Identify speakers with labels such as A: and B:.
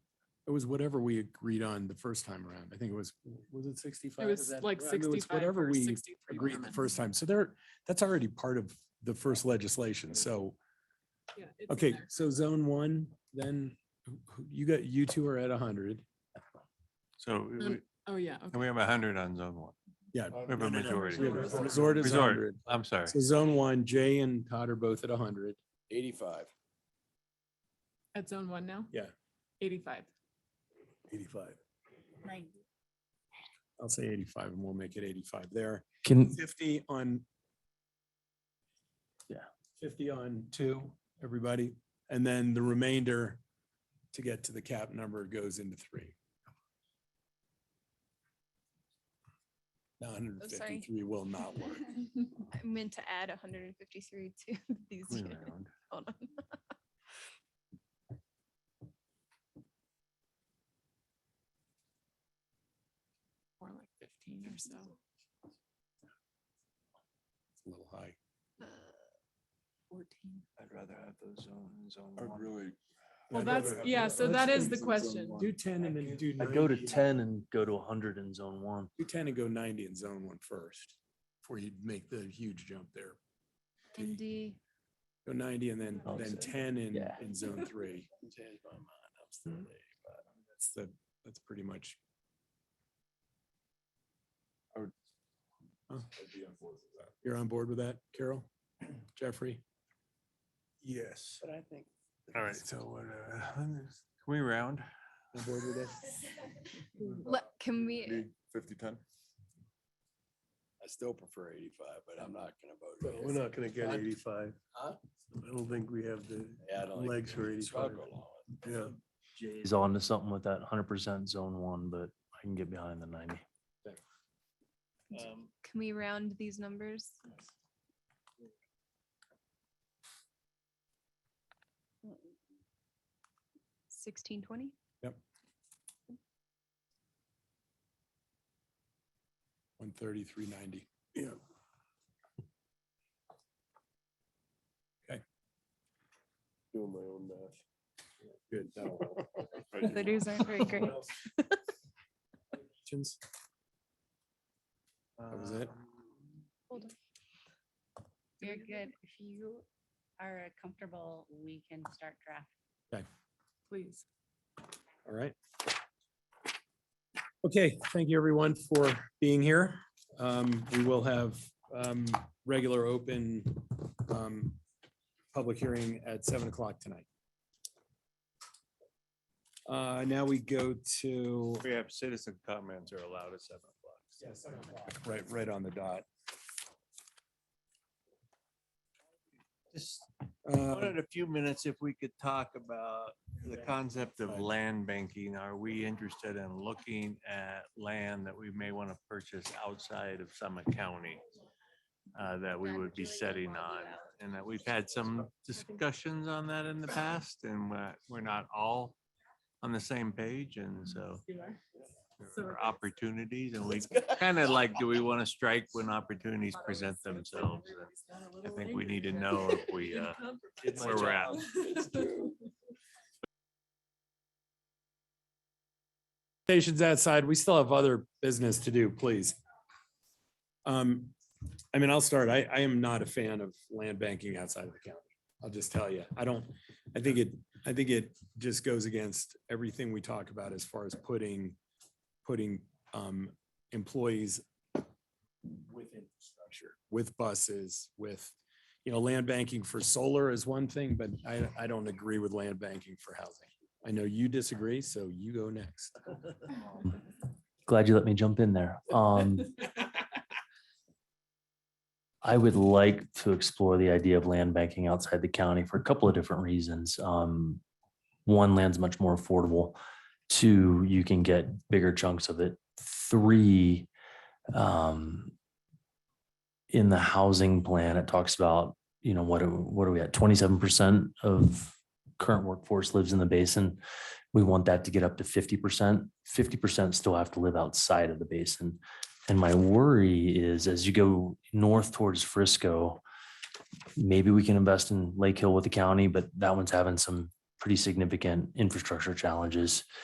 A: It was whatever we agreed on the first time around. I think it was, was it sixty-five?
B: It was like sixty-five
A: Whatever
B: or
A: we
B: sixty-three.
A: agreed the
B: permits.
A: first time. So there, that's already part of the first legislation. So,
B: Yeah, it's in
A: okay,
B: there.
A: so zone one, then who- who- you got, you two are at a hundred.
C: So we-
B: Um, Oh, yeah, okay.
C: we have a hundred on zone one.
A: Yeah.
C: We have a majority.
A: We have a- Resort is
C: Resort.
A: hundred.
C: I'm sorry.
A: So zone one, Jay and Todd are both at a hundred.
D: Eighty-five.
B: At zone one now?
A: Yeah.
B: Eighty-five.
A: Eighty-five. I'll say eighty-five and we'll make it eighty-five there.
E: Can,
A: Fifty on. Yeah, fifty on two, everybody, and then the remainder to get to the cap number goes into three. Nine hundred
F: Oh, sorry.
A: fifty-three will not work.
F: I meant to add hundred and fifty-three to these.
C: Queen
F: units.
C: Island.
F: Hold on.
B: More like fifteen or so.
A: It's A little high.
F: Uh,
B: Fourteen.
C: I'd rather have those zone, zone
D: I'd
C: one.
D: really.
B: Well,
D: I'd
B: that's-
D: rather have
B: yeah,
D: that.
B: so
D: Let's
B: that is
D: do
B: the
D: zone
B: question.
D: one.
A: Do ten and then do.
E: I'd go to
A: 90.
E: ten and go to hundred in zone one.
A: Do ten and go ninety in zone one first, before you make the huge jump there.
F: And D,
A: Go ninety and then,
E: Oh,
A: then
E: so-
A: ten in,
E: yeah. Hmm.
A: in zone three. That's the, that's pretty much,
D: I'd be on board with that.
A: you're on board with that, Carol? Jeffrey?
D: Yes. But I think.
C: All right, so what, uh, 100 can we round?
A: On board with it?
F: let, can we,
D: Fifty, ten? I still prefer eighty-five, but I'm not gonna vote.
G: No,
D: against
G: We're
D: it.
G: not gonna get
D: I'd-
G: eighty-five.
D: Huh?
G: I don't think we have the
D: Yeah, I don't think
G: legs for
D: So I'll
G: eighty-five.
D: go along with it.
G: Yeah.
E: He's on to something with that hundred percent zone one, but I can get behind the ninety.
F: can we round these numbers? Sixteen twenty?
A: One thirty-three ninety.
G: Yeah.
A: Okay.
G: Doing my own math.
A: Good. that'll help.
F: The dues aren't very great.
A: Questions? That was it?
F: Hold on.
H: You're good. If you are comfortable, we can start drafting.
B: Please.
A: All right. Okay, thank you everyone for being here. Um, we will have, um, regular open, um, public hearing at seven o'clock tonight. Uh, now we go to.
C: We have citizen comments are allowed at seven o'clock.
A: Right, right on the dot.
C: Just
A: Uh,
C: wanted a few minutes if we could talk about the concept of
A: Fine.
C: land banking. Are we interested in looking at land that we may want to purchase outside of Summit County? uh, that we would be setting on and that we've had some discussions on that in the past and we're, we're not all on the same page and so
B: You are. So
C: there are opportunities and we kind of like, do we want to strike when opportunities present themselves? And I think we need to know if we, uh, where we're at.
A: Stations outside, we still have other business to do, please. Um, I mean, I'll start. I, I am not a fan of land banking outside of the county. I'll just tell you, I don't, I think it, I think it just goes against everything we talk about as far as putting, putting, um, employees with infrastructure, with buses, with, you know, land banking for solar is one thing, but I, I don't agree with land banking for housing. I know you disagree, so you go next.
E: Glad you let me jump in there. Um, I would like to explore the idea of land banking outside the county for a couple of different reasons. Um, one, land's much more affordable. Two, you can get bigger chunks of it. Three, um, in the housing plan, it talks about, you know, what, are- what are we at? Twenty-seven percent of current workforce lives in the basin. We want that to get up to fifty percent. Fifty percent still have to live outside of the basin. And my worry is as you go north towards Frisco, maybe we can invest in Lake Hill with the county, but that one's having some pretty significant infrastructure challenges.